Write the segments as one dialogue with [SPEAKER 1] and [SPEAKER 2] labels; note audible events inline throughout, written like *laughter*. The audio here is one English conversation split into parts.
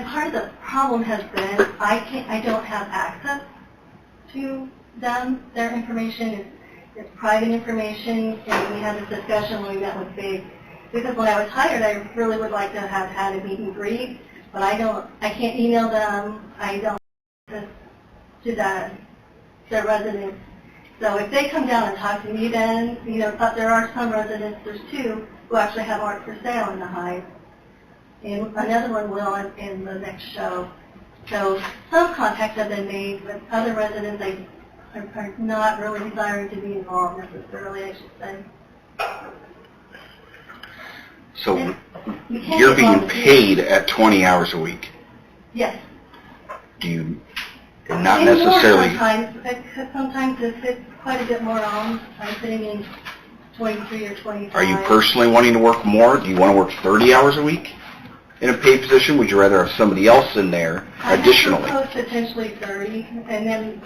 [SPEAKER 1] part of the problem has been, I can't, I don't have access to them, their information is, is private information, and we had this discussion when we met with Big, because when I was hired, I really would like to have had a meet and greet, but I don't, I can't email them, I don't have access to that, their residents. So if they come down and talk to me then, you know, but there are some residents, there's two, who actually have art for sale in the Hive, and another one will in, in the next show. So some contacts have been made, but other residents I, are, are not really desiring to be involved necessarily, I should say.
[SPEAKER 2] So
[SPEAKER 1] You can't
[SPEAKER 2] you're
[SPEAKER 1] get
[SPEAKER 2] being
[SPEAKER 1] volunteers.
[SPEAKER 2] paid at 20 hours a week.
[SPEAKER 1] Yes.
[SPEAKER 2] Do you, and not
[SPEAKER 1] And more
[SPEAKER 2] necessarily,
[SPEAKER 1] Sometimes, because sometimes if it's quite a bit more on, I'm sitting in 23 or 25.
[SPEAKER 2] are you personally wanting to work more? Do you want to work 30 hours a week in a paid position? Would you rather have somebody else in there additionally?
[SPEAKER 1] I proposed potentially 30, and then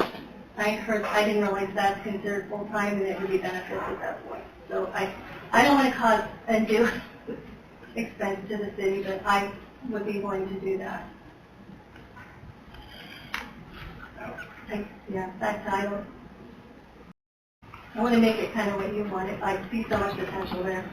[SPEAKER 1] I heard, I didn't realize that's considered full-time, and it would be beneficial at that point. So I, I don't want to cause undue *laughs* expense to the city, but I would be willing to do that. I- Yeah, that's, I don't, I want to make it kind of what you want it, I see so much potential there.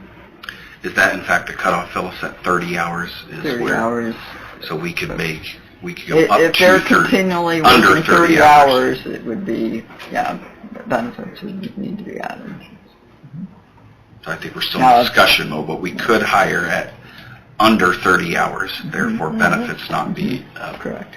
[SPEAKER 2] Is that in fact the cutoff, Phyllis, at 30 hours is
[SPEAKER 3] 30
[SPEAKER 2] where,
[SPEAKER 3] hours.
[SPEAKER 2] so we could make, we could go
[SPEAKER 3] If
[SPEAKER 2] up
[SPEAKER 3] if they're
[SPEAKER 2] to 30?
[SPEAKER 3] continually
[SPEAKER 2] under
[SPEAKER 3] working
[SPEAKER 2] 30
[SPEAKER 3] 30
[SPEAKER 2] hours.
[SPEAKER 3] hours, it would be, yeah, benefits would need to be added.
[SPEAKER 2] So I think we're still in
[SPEAKER 3] No.
[SPEAKER 2] discussion mode, but we could hire at under 30 hours, therefore benefits not be, uh,
[SPEAKER 3] Correct.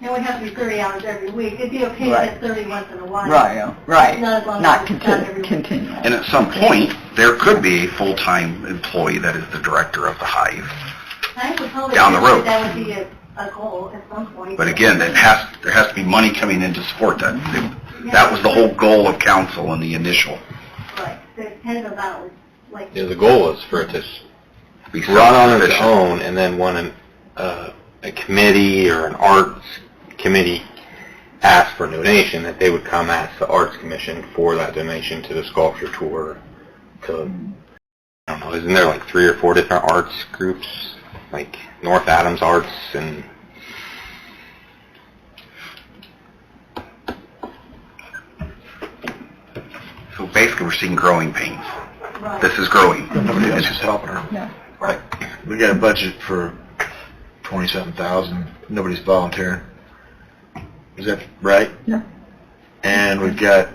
[SPEAKER 1] It would have to be 30 hours every week, it'd be okay
[SPEAKER 3] Right.
[SPEAKER 1] if it's 30 once in a while.
[SPEAKER 3] Right,
[SPEAKER 4] oh,
[SPEAKER 3] yeah, right.
[SPEAKER 1] Not as long
[SPEAKER 3] Not
[SPEAKER 1] as it's done
[SPEAKER 3] contin-
[SPEAKER 1] every week.
[SPEAKER 3] continuous.
[SPEAKER 2] And at some point, there could be a full-time employee that is the director of the hive.
[SPEAKER 1] I would probably
[SPEAKER 2] Down the
[SPEAKER 1] think
[SPEAKER 2] road.
[SPEAKER 1] That would be a, a goal at some point.
[SPEAKER 2] But again, that has, there has to be money coming in to support that. That was the whole goal of council in the initial.
[SPEAKER 1] Right, there's kind of a balance, like,
[SPEAKER 5] Yeah, the goal was for it to s-
[SPEAKER 2] Be
[SPEAKER 5] run on its
[SPEAKER 2] self-sufficient.
[SPEAKER 5] own, and then when an, uh, a committee or an arts committee asked for a donation, that they would come ask the arts commission for that donation to the sculpture tour. To I don't know, isn't there like three or four different arts groups, like North Adams Arts and
[SPEAKER 2] So basically, we're seeing growing pains.
[SPEAKER 1] right,
[SPEAKER 2] This is growing. It's just helping her.
[SPEAKER 3] Yeah.
[SPEAKER 2] Right.
[SPEAKER 6] We got a budget for twenty-seven thousand, nobody's volunteering. Is that right?
[SPEAKER 3] Yeah.
[SPEAKER 6] And we've got,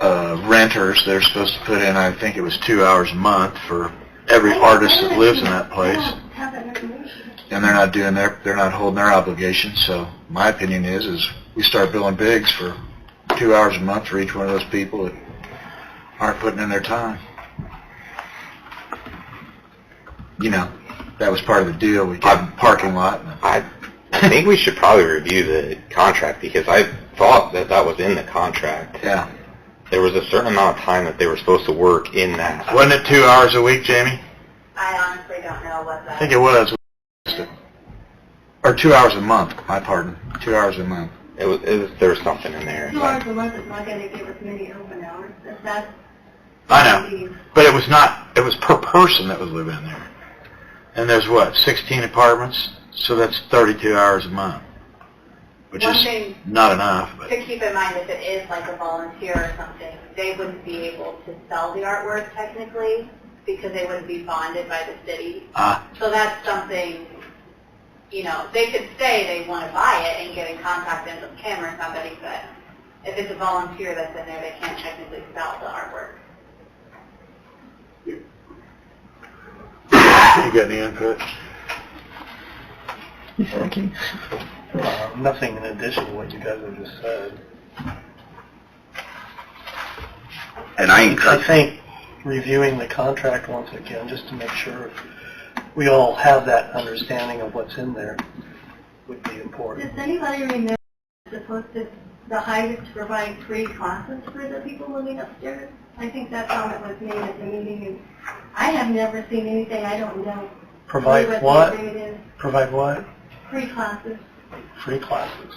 [SPEAKER 6] uh, renters that are supposed to put in, I think it was two hours a month for every artist that lives in that place.
[SPEAKER 1] I don't have that information.
[SPEAKER 6] And they're not doing their, they're not holding their obligations, so my opinion is, is we start billing bigs for two hours a month for each one of those people that aren't putting in their time. You know, that was part of the deal, we got a parking lot and
[SPEAKER 5] I, I think we should probably review the contract because I thought that that was in the contract.
[SPEAKER 6] Yeah.
[SPEAKER 5] There was a certain amount of time that they were supposed to work in that.
[SPEAKER 6] Wasn't it two hours a week, Jamie?
[SPEAKER 1] I honestly don't know what
[SPEAKER 6] I think it was. Or two hours a month, my pardon. Two hours a month.
[SPEAKER 5] It was, it was there was something in there.
[SPEAKER 1] Two hours a month is not gonna give us many open hours, if that's.
[SPEAKER 6] I know. But it was not, it was per person that was living there. And there's what, 16 apartments? So that's 32 hours a month. Which
[SPEAKER 1] One
[SPEAKER 6] is
[SPEAKER 1] thing-
[SPEAKER 6] not enough, but
[SPEAKER 1] To keep in mind, if it is like a volunteer or something, they wouldn't be able to sell the artwork technically, because they wouldn't be bonded by the city.
[SPEAKER 6] Ah.
[SPEAKER 1] So that's something, you know, they could say they want to buy it and get in contact with Kim or somebody, but if it's a volunteer that's in there, they can't technically sell the artwork.
[SPEAKER 6] you got any input?
[SPEAKER 3] He's thinking.
[SPEAKER 7] Uh, Nothing in addition to what you guys have just said.
[SPEAKER 2] And I
[SPEAKER 7] I
[SPEAKER 2] encourage,
[SPEAKER 7] think reviewing the contract once again, just to make sure we all have that understanding of what's in there, would be important.
[SPEAKER 1] Does anybody remember supposed to, the highest to provide free classes for the people living upstairs? I think that comment was made at the meeting, and I have never seen anything, I don't know.
[SPEAKER 7] Provide
[SPEAKER 1] What the
[SPEAKER 7] what?
[SPEAKER 1] agreement is,
[SPEAKER 7] Provide what?
[SPEAKER 1] free classes.
[SPEAKER 7] Free classes.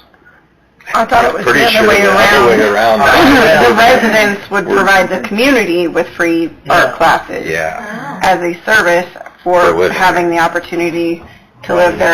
[SPEAKER 4] I thought it was the
[SPEAKER 5] Pretty sure
[SPEAKER 4] other way
[SPEAKER 5] the other way
[SPEAKER 4] around.
[SPEAKER 5] around.
[SPEAKER 4] *laughs* The residents would provide the community with free
[SPEAKER 7] Yeah.
[SPEAKER 4] art classes
[SPEAKER 5] *clears throat* Yeah.
[SPEAKER 1] Ah.
[SPEAKER 4] as a service
[SPEAKER 5] For
[SPEAKER 4] for
[SPEAKER 5] living.
[SPEAKER 4] having the opportunity to live their